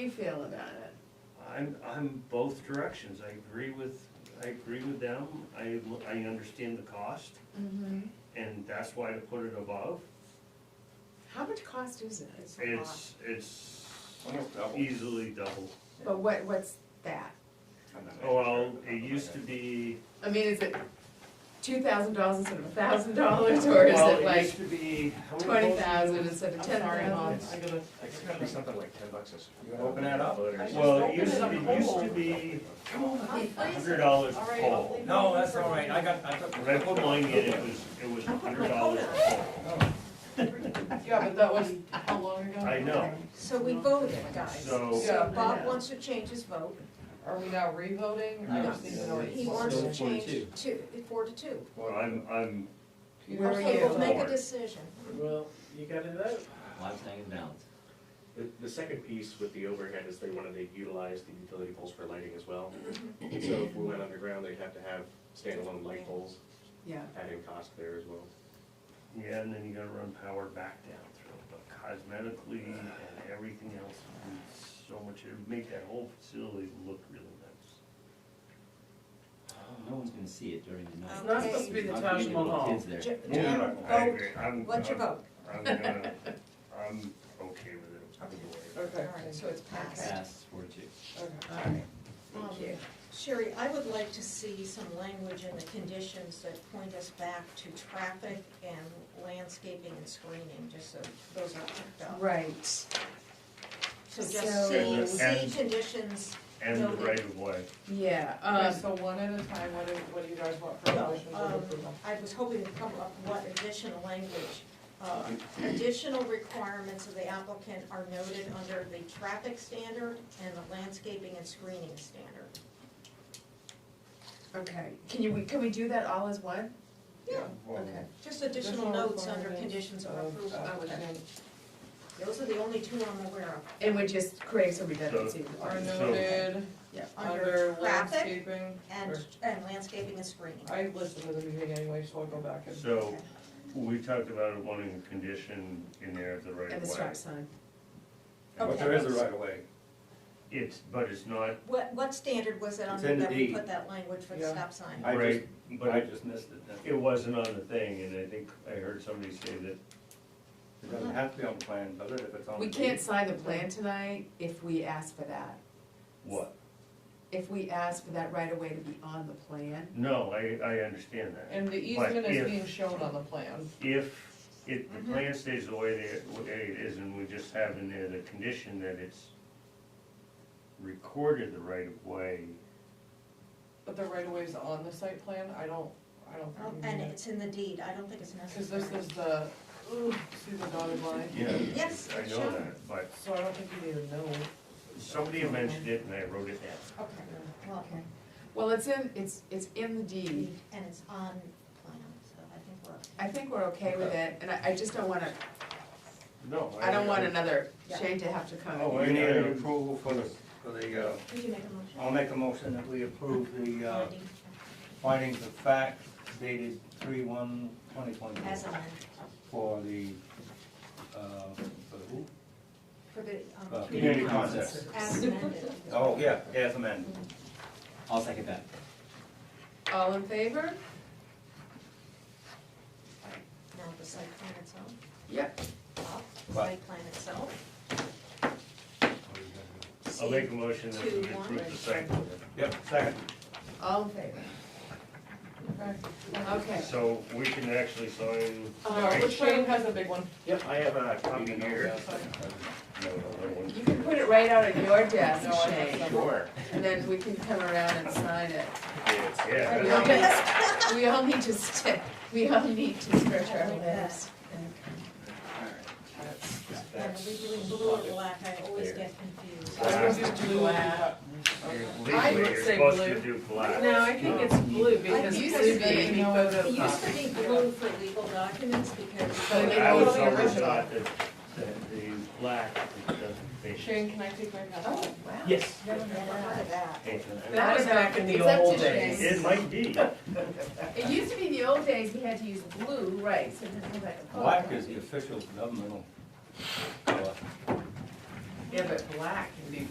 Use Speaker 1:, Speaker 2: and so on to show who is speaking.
Speaker 1: do you feel about it?
Speaker 2: I'm, I'm both directions, I agree with, I agree with them, I, I understand the cost,
Speaker 1: Mm-hmm.
Speaker 2: and that's why I put it above.
Speaker 1: How much cost is it?
Speaker 3: It's a lot.
Speaker 2: It's, it's
Speaker 4: Almost double.
Speaker 2: easily double.
Speaker 1: But what, what's that?
Speaker 4: I'm not
Speaker 2: Oh, well,
Speaker 4: sure.
Speaker 2: it used to be,
Speaker 1: I mean, is it two thousand dollars instead of a thousand dollars, or is
Speaker 2: well,
Speaker 1: it
Speaker 2: it used
Speaker 1: like
Speaker 2: to be, how many
Speaker 1: twenty
Speaker 2: votes?
Speaker 1: thousand instead of
Speaker 3: I'm
Speaker 1: ten
Speaker 3: sorry,
Speaker 1: thousand?
Speaker 3: Mom.
Speaker 4: It's,
Speaker 3: I gotta-
Speaker 4: it's gotta be something like ten bucks. or something. You wanna open that up?
Speaker 2: Well,
Speaker 3: Just
Speaker 2: it used
Speaker 3: open it
Speaker 2: to
Speaker 3: up
Speaker 2: be,
Speaker 3: whole.
Speaker 2: used to be
Speaker 4: Come on.
Speaker 2: hundred dollars
Speaker 3: All
Speaker 2: a
Speaker 3: right, I'll
Speaker 2: poll.
Speaker 3: leave
Speaker 4: No,
Speaker 3: it
Speaker 4: that's
Speaker 3: for-
Speaker 4: all right, I got, I got.
Speaker 2: When I put mine in, it was, it was hundred dollars a poll.
Speaker 3: Yeah, but that was how long ago?
Speaker 2: I know,
Speaker 5: So we voted, guys.
Speaker 2: So-
Speaker 5: So Bob wants to change his vote.
Speaker 3: Are we now revoting? I just need to know.
Speaker 5: He
Speaker 3: what-
Speaker 5: wants to
Speaker 6: Still four to
Speaker 5: change two, four to two.
Speaker 2: well, I'm, I'm,
Speaker 1: Where are
Speaker 5: Okay, we'll
Speaker 1: you?
Speaker 5: make a
Speaker 2: Forward.
Speaker 5: decision.
Speaker 6: Well, you got it out.
Speaker 7: Last thing is balance.
Speaker 8: The, the second piece with the overhead is they wanted to utilize the utility poles for lighting as well. So if we went underground, they'd have to have standalone light poles,
Speaker 1: Yeah,
Speaker 8: adding cost there as well.
Speaker 2: yeah, and then you gotta run power back down through it, but cosmetically and everything else, would be so much, it would make that whole facility look really nice. Um,
Speaker 7: No one's gonna see it during the night.
Speaker 3: It's not supposed to be the
Speaker 7: Not gonna
Speaker 3: Taj
Speaker 7: get little
Speaker 3: Mahal.
Speaker 7: Kids there.
Speaker 5: J-
Speaker 2: Yeah,
Speaker 5: Jim,
Speaker 2: I
Speaker 5: vote.
Speaker 2: agree. I'm-
Speaker 5: What's your
Speaker 2: I'm-
Speaker 5: vote?
Speaker 2: I'm gonna, I'm okay with it. I'm for it.
Speaker 3: Okay.
Speaker 5: All right, so it's passed.
Speaker 7: Pass four two.
Speaker 3: okay.
Speaker 5: All right.
Speaker 1: thank you.
Speaker 5: Um, Sherry, I would like to see some language in the conditions that point us back to traffic and landscaping and screening, just so those are picked up.
Speaker 1: Right.
Speaker 5: So
Speaker 1: So-
Speaker 5: just see,
Speaker 2: And-
Speaker 5: see conditions,
Speaker 2: And the right of way.
Speaker 1: Yeah,
Speaker 3: Okay,
Speaker 1: um,
Speaker 3: so one at a time, what do, what do you guys want for a
Speaker 5: Well,
Speaker 3: motion for
Speaker 5: um,
Speaker 3: approval?
Speaker 5: I was hoping to come up what additional language. Uh, Additional requirements of the applicant are noted under the traffic standard and the landscaping and screening standard.
Speaker 1: okay, can you, can we do that all as one?
Speaker 5: Yeah.
Speaker 4: Well,
Speaker 1: Okay.
Speaker 5: Just additional notes under conditions of
Speaker 3: uh,
Speaker 5: approval.
Speaker 4: uh,
Speaker 5: Those are the only two I'm aware of.
Speaker 1: And we just create some redundancy.
Speaker 3: Are
Speaker 2: So-
Speaker 3: noted
Speaker 1: Yeah.
Speaker 3: under
Speaker 5: traffic
Speaker 3: landscaping.
Speaker 5: And,
Speaker 3: or-
Speaker 5: and landscaping and screening.
Speaker 3: I listened to the meeting anyway, so I'll go back and.
Speaker 2: So, we talked about wanting a condition in there of the right
Speaker 1: And the
Speaker 2: of
Speaker 1: stop
Speaker 2: way.
Speaker 1: sign.
Speaker 4: But there is a right of way.
Speaker 2: It's, but it's not,
Speaker 5: What, what standard was it
Speaker 4: It's
Speaker 5: under
Speaker 4: in the
Speaker 5: that we
Speaker 4: deed.
Speaker 5: put that language for the
Speaker 3: Yeah.
Speaker 5: stop sign?
Speaker 4: I
Speaker 2: Right,
Speaker 4: just,
Speaker 2: but-
Speaker 4: I just missed it then.
Speaker 2: it wasn't on the thing, and I think I heard somebody say that
Speaker 4: It doesn't have to be on the plan, does it, if it's on the.
Speaker 1: We can't sign the plan tonight if we ask for that.
Speaker 2: What?
Speaker 1: If we ask for that right away to be on the plan,
Speaker 2: No, I, I understand that.
Speaker 3: And the
Speaker 2: But
Speaker 3: easement is
Speaker 2: if-
Speaker 3: being shown on the plan.
Speaker 2: If it, the plan stays the way that it- way it is, and we just have in there the condition that it's recorded the right of way,
Speaker 3: But the right of way's on the site plan, I don't, I don't.
Speaker 5: Oh,
Speaker 3: think we
Speaker 5: And
Speaker 3: need it.
Speaker 5: it's in the deed, I don't think it's
Speaker 3: Cause this
Speaker 5: necessary.
Speaker 3: is the, ooh, see the dotted line,
Speaker 2: yeah.
Speaker 5: Yes,
Speaker 2: I
Speaker 5: it's
Speaker 2: know
Speaker 5: shown.
Speaker 2: that, but
Speaker 3: so I don't think you need to know.
Speaker 2: somebody mentioned it and I wrote it down.
Speaker 5: Okay, well,
Speaker 1: well, it's in, it's, it's in the deed.
Speaker 5: and it's on plan, so I think we're.
Speaker 1: I think we're okay with it, and I, I just don't wanna,
Speaker 2: No.
Speaker 1: I don't want another
Speaker 5: Yeah.
Speaker 1: Shane to have to come.
Speaker 4: Oh,
Speaker 1: in.
Speaker 4: we need an approval for the, for the, uh,
Speaker 5: Did you make a
Speaker 4: I'll make a motion that we approve the, uh,
Speaker 5: motion?
Speaker 4: findings of fact dated three one twenty twenty
Speaker 5: As amended,
Speaker 4: for the, uh, for who?
Speaker 5: for the,
Speaker 4: Uh,
Speaker 5: um,
Speaker 4: Community
Speaker 5: community
Speaker 4: contest.
Speaker 5: as amended.
Speaker 4: Oh, yeah, as amended.
Speaker 7: I'll second that.
Speaker 1: All in favor?
Speaker 5: Now the site plan itself,
Speaker 1: Yep.
Speaker 5: up,
Speaker 4: Right.
Speaker 5: site plan itself.
Speaker 2: I'll make a motion that we
Speaker 5: Two, one.
Speaker 2: approve the site plan.
Speaker 4: Yep, second.
Speaker 1: All in favor?
Speaker 3: Okay.
Speaker 1: Okay.
Speaker 2: So we can actually sign.
Speaker 1: Uh,
Speaker 3: Which Shane has a big one.
Speaker 8: Yep, I have a
Speaker 2: copy here. No, no, no, one.
Speaker 1: You can put it right out on your desk,
Speaker 3: No, I have
Speaker 1: Shane,
Speaker 3: some.
Speaker 8: Sure.
Speaker 1: and then we can come around and sign it.
Speaker 2: Yeah.
Speaker 1: We all need- We all need to step, we all need to stretch our legs.
Speaker 5: And Are we doing blue or black? I always get confused.
Speaker 3: I was just blue.
Speaker 1: Wow.
Speaker 3: I
Speaker 2: Legally,
Speaker 3: would
Speaker 2: you're
Speaker 3: say
Speaker 2: supposed to
Speaker 3: blue.
Speaker 2: do black.
Speaker 3: No, I think it's blue because
Speaker 1: used
Speaker 3: blue
Speaker 1: to be,
Speaker 3: being
Speaker 1: you know,
Speaker 5: It used to
Speaker 3: photocopy.
Speaker 5: be blue for legal documents because.
Speaker 3: But
Speaker 2: I was
Speaker 3: Original.
Speaker 2: always thought that, that the black doesn't fit.
Speaker 3: Shane, can I take my
Speaker 1: Oh,
Speaker 3: hat off?
Speaker 2: Yes.
Speaker 5: Never heard of that.
Speaker 3: That was back in the
Speaker 1: It's up to
Speaker 3: old
Speaker 1: Shane.
Speaker 2: It might be.
Speaker 1: It used to be in the old days, we had to use blue, right, so then we had to-
Speaker 4: Black is the official governmental color.
Speaker 3: Yeah, but black can be